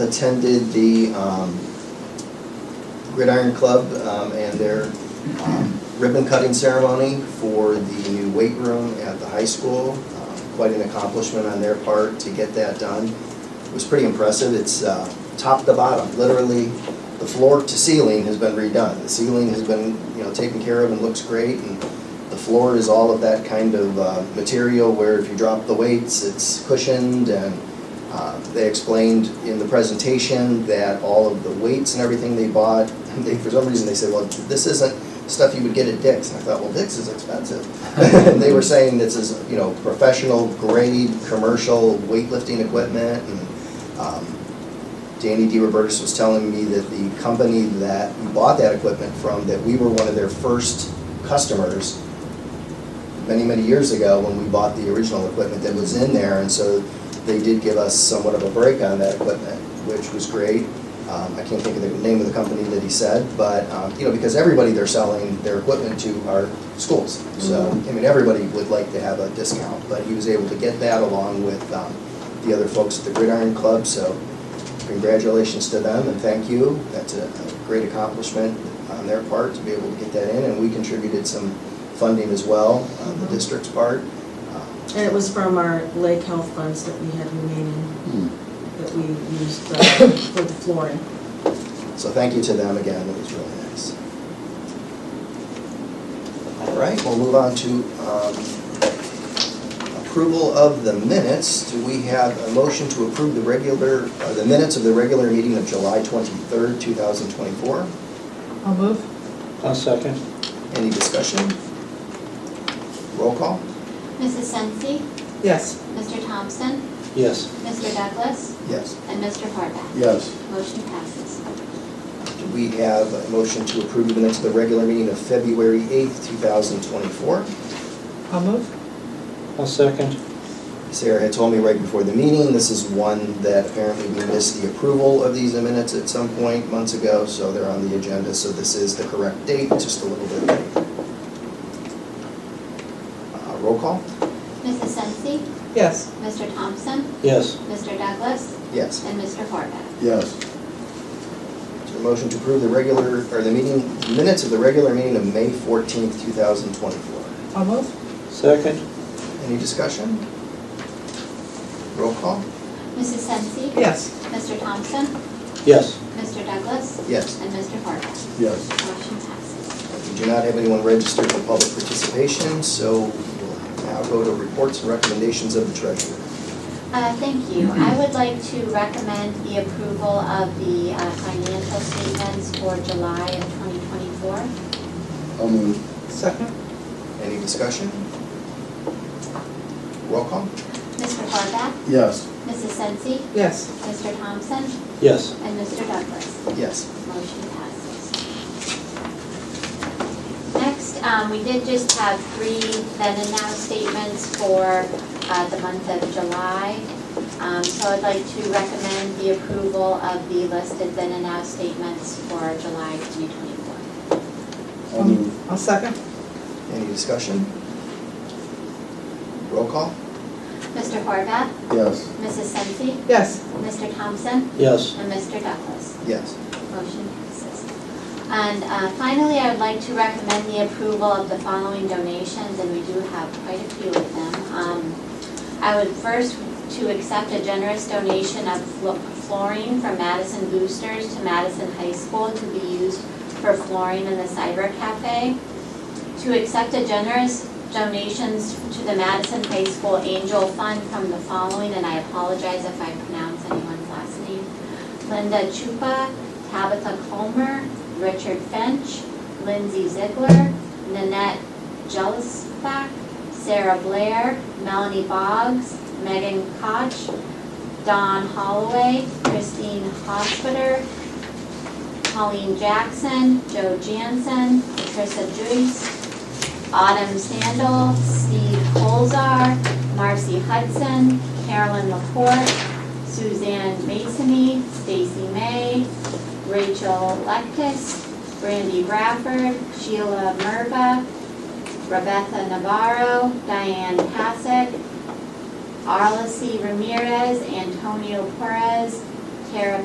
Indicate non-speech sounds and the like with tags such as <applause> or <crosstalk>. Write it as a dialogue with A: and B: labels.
A: attended the um, Gridiron Club um, and their um, ribbon cutting ceremony for the new weight room at the high school. Um, Quite an accomplishment on their part to get that done. It was pretty impressive. It's uh, top to bottom, literally, the floor to ceiling has been redone. The ceiling has been, you know, taken care of and looks great. And the floor is all of that kind of uh, material where if you drop the weights, it's cushioned and uh, They explained in the presentation that all of the weights and everything they bought, <laughs> they, for some reason, they said, well, this isn't stuff you would get at Dick's. And I thought, well, Dick's is expensive. <laughs> And they were saying this is, you know, professional grade, commercial weightlifting equipment. And um, Danny DeRobertis was telling me that the company that we bought that equipment from, that we were one of their first customers many, many years ago when we bought the original equipment that was in there. And so they did give us somewhat of a break on that equipment, which was great. Um, I can't think of the name of the company that he said, but, um, you know, because everybody they're selling their equipment to are schools. So, I mean, everybody would like to have a discount, but he was able to get that along with um, the other folks at the Gridiron Club. So congratulations to them and thank you. That's a a great accomplishment on their part to be able to get that in. And we contributed some funding as well on the district's part. Um,
B: And it was from our lake health funds that we had remaining, that we used uh, <coughs> for the flooring.
A: So thank you to them again, it was really nice. All right, we'll move on to um, approval of the minutes. Do we have a motion to approve the regular, uh, the minutes of the regular meeting of July 23rd, 2024?
C: I'll move.
D: I'll second.
A: Any discussion? Roll call?
E: Mrs. Sensi,
C: Yes.
E: Mr. Thompson,
D: Yes.
E: Mr. Douglas,
A: Yes.
E: and Mr. Horvath.
F: Yes,
E: Motion passes.
A: Do we have a motion to approve the minutes of the regular meeting of February 8th, 2024?
C: I'll move.
D: I'll second.
A: Sarah had told me right before the meeting, this is one that apparently we missed the approval of these minutes at some point months ago, so they're on the agenda, so this is the correct date, just a little bit late. Uh, Roll call?
E: Mrs. Sensi,
C: Yes.
E: Mr. Thompson,
D: Yes.
E: Mr. Douglas,
A: Yes.
E: and Mr. Horvath.
F: yes,
A: Is there a motion to approve the regular, or the meeting, minutes of the regular meeting of May 14th, 2024?
C: I'll move.
D: Second.
A: Any discussion? Roll call?
E: Mrs. Sensi,
C: Yes.
E: Mr. Thompson,
D: Yes.
E: Mr. Douglas,
A: Yes.
E: and Mr. Horvath.
F: yes.
E: Motion passes.
A: We do not have anyone registered for public participation, so we'll now go to reports and recommendations of the treasurer.
E: Uh, Thank you. I would like to recommend the approval of the uh, financial statements for July of 2024.
F: I'll move,
C: Second.
A: Any discussion? Roll call?
E: Mr. Horvath,
F: yes,
E: Mrs. Sensi,
C: Yes.
E: Mr. Thompson,
D: Yes.
E: and Mr. Douglas.
A: Yes.
E: Motion passes. Next, um, we did just have three then and now statements for uh, the month of July. Um, So I'd like to recommend the approval of the listed then and now statements for July 2024.
F: I'll move,
C: I'll second.
A: Any discussion? Roll call?
E: Mr. Horvath,
F: yes,
E: Mrs. Sensi,
C: Yes.
E: Mr. Thompson,
D: Yes.
E: and Mr. Douglas.
A: Yes.
E: Motion passes. And uh, finally, I would like to recommend the approval of the following donations, and we do have quite a few of them. Um, I would first to accept a generous donation of flo- flooring from Madison Boosters to Madison High School to be used for flooring in the Cyber Cafe. To accept a generous donations to the Madison High School Angel Fund from the following, and I apologize if I pronounce anyone's last name. Linda Chupa, Tabitha Comer, Richard Finch, Lindsay Ziegler, Nanette Jelisback, Sarah Blair, Melanie Boggs, Megan Koch, Don Holloway, Christine Hospiter, Colleen Jackson, Joe Jansen, Patricia Joyce, Autumn Sandal, Steve Colzar, Marcy Hudson, Carolyn Laporte, Suzanne Masony, Stacy May, Rachel Lectis, Brandy Bradford, Sheila Merva, Rebecca Navarro, Diane Passick, Arlissy Ramirez, Antonio Perez, Tara